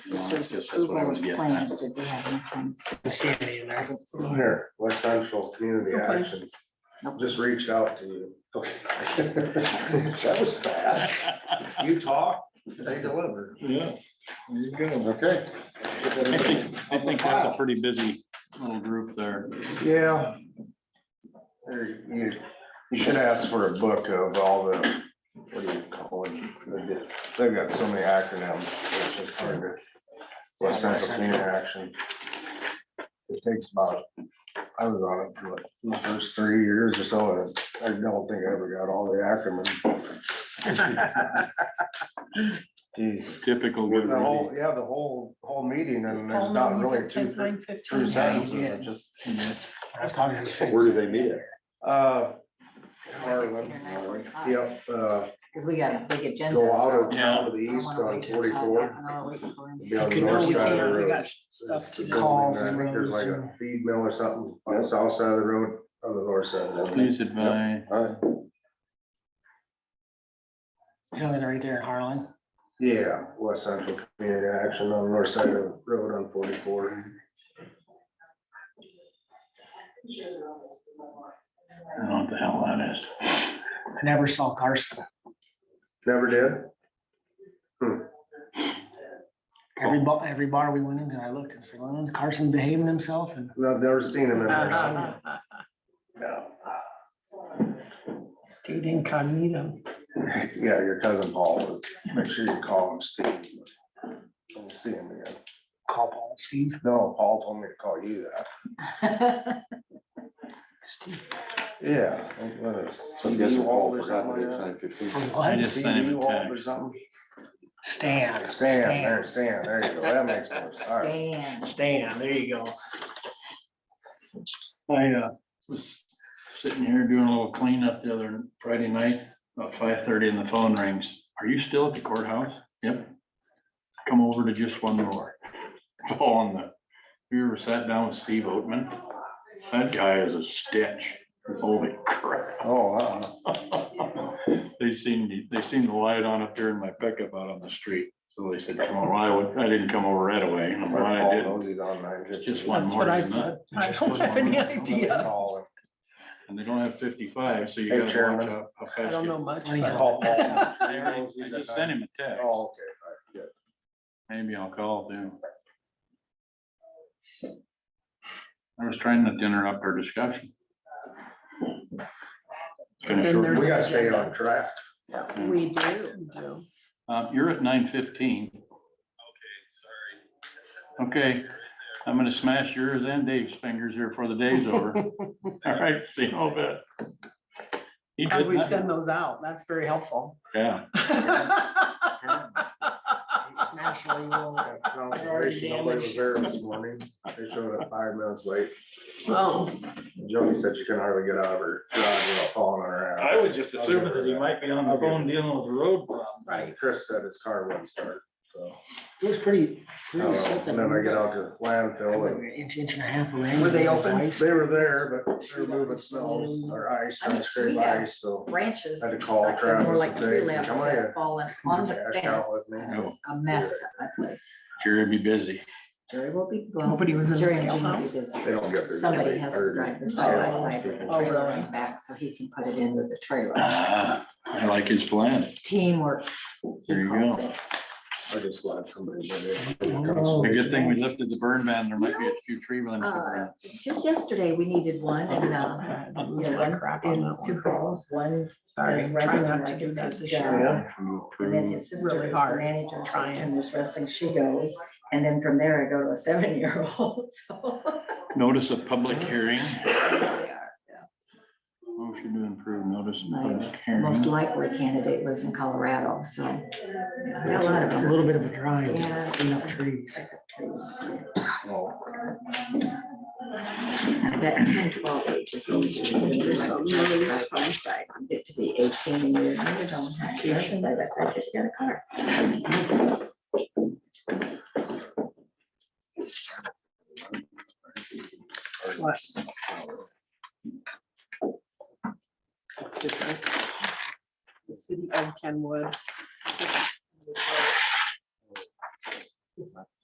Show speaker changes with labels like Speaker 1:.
Speaker 1: says
Speaker 2: Yes, that's what I
Speaker 1: approval
Speaker 2: was
Speaker 1: of
Speaker 2: getting at.
Speaker 1: plans, did we have any plans?
Speaker 3: I see any in
Speaker 1: I
Speaker 3: there.
Speaker 1: didn't see any.
Speaker 4: Here, West Central Community
Speaker 1: Okay.
Speaker 4: Action,
Speaker 1: Nope.
Speaker 4: just reached out to you. That was fast. You talk, they deliver.
Speaker 5: Yeah, there you go.
Speaker 4: Okay.
Speaker 5: I think, I think that's a pretty busy little group there.
Speaker 4: Yeah. There, You, you should ask for a book of all the, what do you call it? They get- They've got so many acronyms, it's just hard to. West Central Community Action. It takes about, I was on it for like the first three years or so, and I don't think I ever got all the acronyms. Jeez.
Speaker 5: Typical
Speaker 4: The
Speaker 5: good review.
Speaker 4: whole, yeah, the whole, whole meeting
Speaker 6: Just
Speaker 4: and
Speaker 6: call
Speaker 4: there's not
Speaker 6: names
Speaker 4: really
Speaker 6: at
Speaker 4: two,
Speaker 6: 10:15.
Speaker 4: true sentences,
Speaker 2: Yeah.
Speaker 4: it's just.
Speaker 3: I was talking to the same-
Speaker 7: Where do they meet at?
Speaker 4: Uh, Harlan,
Speaker 1: Because
Speaker 4: yep, uh,
Speaker 1: we got a big agenda.
Speaker 4: go out of
Speaker 1: so
Speaker 4: town to the
Speaker 1: I
Speaker 4: east
Speaker 1: wanna
Speaker 4: on
Speaker 1: wait till it's all
Speaker 4: forty-four.
Speaker 1: back and I'll wait for him.
Speaker 4: be on the
Speaker 3: You can
Speaker 4: north
Speaker 3: only
Speaker 4: side of the
Speaker 3: hear,
Speaker 6: we
Speaker 4: road.
Speaker 6: got stuff to
Speaker 4: There's a
Speaker 6: do.
Speaker 4: building
Speaker 3: Calls
Speaker 4: there,
Speaker 3: and
Speaker 4: I think There's like
Speaker 3: roads
Speaker 4: a feed mill or something on the south side of the road, on the north side. of the road.
Speaker 5: Please advise.
Speaker 4: Alright.
Speaker 3: Building right there in Harlan.
Speaker 4: Yeah, West Central Community Action on the north side of the road on forty-four.
Speaker 5: I don't know what the hell that is.
Speaker 3: I never saw Carson.
Speaker 4: Never did?
Speaker 3: Every bar, every bar we went into, I looked and said, well, Carson behaving himself and
Speaker 4: No, I've never seen him in person. No.
Speaker 6: Stayed incognito.
Speaker 4: Yeah, your cousin Paul, would- make sure you call him Steve. Don't see him again.
Speaker 3: call Paul Steve.
Speaker 4: No, Paul told me to call you that.
Speaker 3: Steve,
Speaker 4: Yeah. I think what is it,
Speaker 7: So I'm guessing
Speaker 4: TV Wall
Speaker 7: Paul
Speaker 4: or
Speaker 7: forgot
Speaker 4: something like
Speaker 7: that it's
Speaker 4: that?
Speaker 7: nine fifteen.
Speaker 3: for
Speaker 5: I
Speaker 3: what?
Speaker 5: just sent him
Speaker 4: TV
Speaker 5: a
Speaker 4: Wall or
Speaker 5: text.
Speaker 4: something?
Speaker 3: Stan.
Speaker 4: Stan, there, Stan, there you go. That makes more sense. All right.
Speaker 1: Stan.
Speaker 3: Stan, there you go.
Speaker 5: I uh, was sitting here doing a little cleanup the other Friday night, about five thirty and the phone rings. Are you still at the courthouse? Yep. Come over to just one more. Fall on the, you ever sat down with Steve Oatman? That guy is a stitch. Holy crap.
Speaker 4: Oh, wow.
Speaker 5: They seen, they seen the light on up there in my pickup out on the street, so they said, come on, well, I would- I didn't come over right away, and I'm glad I
Speaker 4: Paul
Speaker 5: didn't.
Speaker 4: knows he's on nine fifty.
Speaker 5: Just one
Speaker 6: That's
Speaker 5: more
Speaker 6: what I
Speaker 5: than that,
Speaker 6: said. I
Speaker 3: Just
Speaker 6: don't
Speaker 3: one
Speaker 6: have any
Speaker 5: more.
Speaker 6: idea.
Speaker 4: Call him.
Speaker 5: and they don't have fifty-five, so you
Speaker 4: Hey,
Speaker 5: gotta
Speaker 4: Chairman.
Speaker 5: watch out. how fast
Speaker 6: I don't
Speaker 5: you-
Speaker 6: know much,
Speaker 3: Well, you
Speaker 6: but
Speaker 4: Call Paul.
Speaker 5: They already- I just sent him a text,
Speaker 4: Oh, okay. All right, good.
Speaker 5: maybe I'll call them. I was trying not to interrupt our discussion. It's been a
Speaker 6: Then
Speaker 5: short-
Speaker 6: there's-
Speaker 4: We gotta stay on track.
Speaker 1: We do.
Speaker 6: Joe.
Speaker 5: Um, you're at nine fifteen. Okay, sorry. Okay, I'm gonna smash yours and Dave's fingers here before the day's over. All right, see you in a bit. He
Speaker 6: How do
Speaker 5: did
Speaker 6: we
Speaker 5: not-
Speaker 6: send those out? That's very helpful.
Speaker 5: Yeah.
Speaker 3: Nationally, well,
Speaker 4: Yeah, Conservation, Nobody was there this morning. They showed up five minutes late.
Speaker 6: Oh,
Speaker 4: Jody said she couldn't hardly get out of her garage without falling on her ass.
Speaker 5: just
Speaker 4: assuming that he
Speaker 5: might be on
Speaker 4: the phone
Speaker 5: dealing with the road problem.
Speaker 6: right.
Speaker 4: Chris said his car wouldn't start, so.
Speaker 3: It was pretty,
Speaker 4: I don't
Speaker 3: pretty
Speaker 4: know.
Speaker 3: something.
Speaker 4: And then I get out to landfill and
Speaker 3: An Inch, inch and a half of rain.
Speaker 6: Were they open?
Speaker 3: Twice.
Speaker 4: they were there, but they were moving snow or ice,
Speaker 1: I mean,
Speaker 4: ice, scrape
Speaker 1: we got-
Speaker 4: ice, so.
Speaker 1: Branches.
Speaker 4: I had to
Speaker 1: like,
Speaker 4: call
Speaker 1: they're More
Speaker 4: Travis
Speaker 1: like
Speaker 4: and say,
Speaker 1: tree
Speaker 4: "Can you
Speaker 1: limbs
Speaker 4: come here.
Speaker 1: that fallen on the
Speaker 4: Cash out
Speaker 1: fence.
Speaker 4: with me.
Speaker 1: It's A mess at my place.
Speaker 5: Jerry be busy.
Speaker 1: Jerry will be. gone.
Speaker 6: Nobody was in the
Speaker 1: Jerry and
Speaker 6: sale
Speaker 1: Jean will be
Speaker 6: house.
Speaker 1: busy.
Speaker 4: They don't get there.
Speaker 1: Somebody has to drive the side by side with the
Speaker 6: Oh,
Speaker 1: trailer
Speaker 6: really?
Speaker 1: and back so he can put it into the trailer.
Speaker 5: Ah, I like his plan.
Speaker 1: Teamwork. he
Speaker 5: There you
Speaker 1: calls
Speaker 5: go.
Speaker 1: it.
Speaker 4: I'm just glad somebody did it.
Speaker 1: Oh,
Speaker 5: A good thing we lifted the burn ban. There might be a few tree limbs.
Speaker 1: Uh, Just yesterday, we needed one and, um,
Speaker 6: Okay, that
Speaker 1: you
Speaker 6: looks
Speaker 1: know,
Speaker 6: like
Speaker 1: one's
Speaker 6: crap on
Speaker 1: in
Speaker 6: that
Speaker 1: Sioux
Speaker 6: one.
Speaker 1: Falls, one
Speaker 6: Sorry,
Speaker 1: is
Speaker 6: try
Speaker 1: wrestling,
Speaker 6: not to
Speaker 1: like,
Speaker 6: do
Speaker 1: it's
Speaker 6: that
Speaker 1: his
Speaker 6: this
Speaker 1: job.
Speaker 6: year.
Speaker 4: Yeah.
Speaker 1: And then his
Speaker 6: Really
Speaker 1: sister is the
Speaker 6: hard,
Speaker 1: manager,
Speaker 6: trying.
Speaker 1: and there's wrestling, she goes, and then from there I go to a seven-year-old, so.
Speaker 5: Notice of public hearing.
Speaker 1: Yeah.
Speaker 5: Motion to improve notice of public
Speaker 1: Most
Speaker 5: hearing.
Speaker 1: likely candidate lives in Colorado, so. Got a lot of
Speaker 3: A
Speaker 1: them.
Speaker 3: little bit of a drive,
Speaker 1: Yeah.
Speaker 3: to clean up trees.
Speaker 1: That 10, 12 age is always when you're like side by side, you get to be eighteen and you're, you don't have, you're side by side, 'cause you got a car.
Speaker 6: The city of Kenwood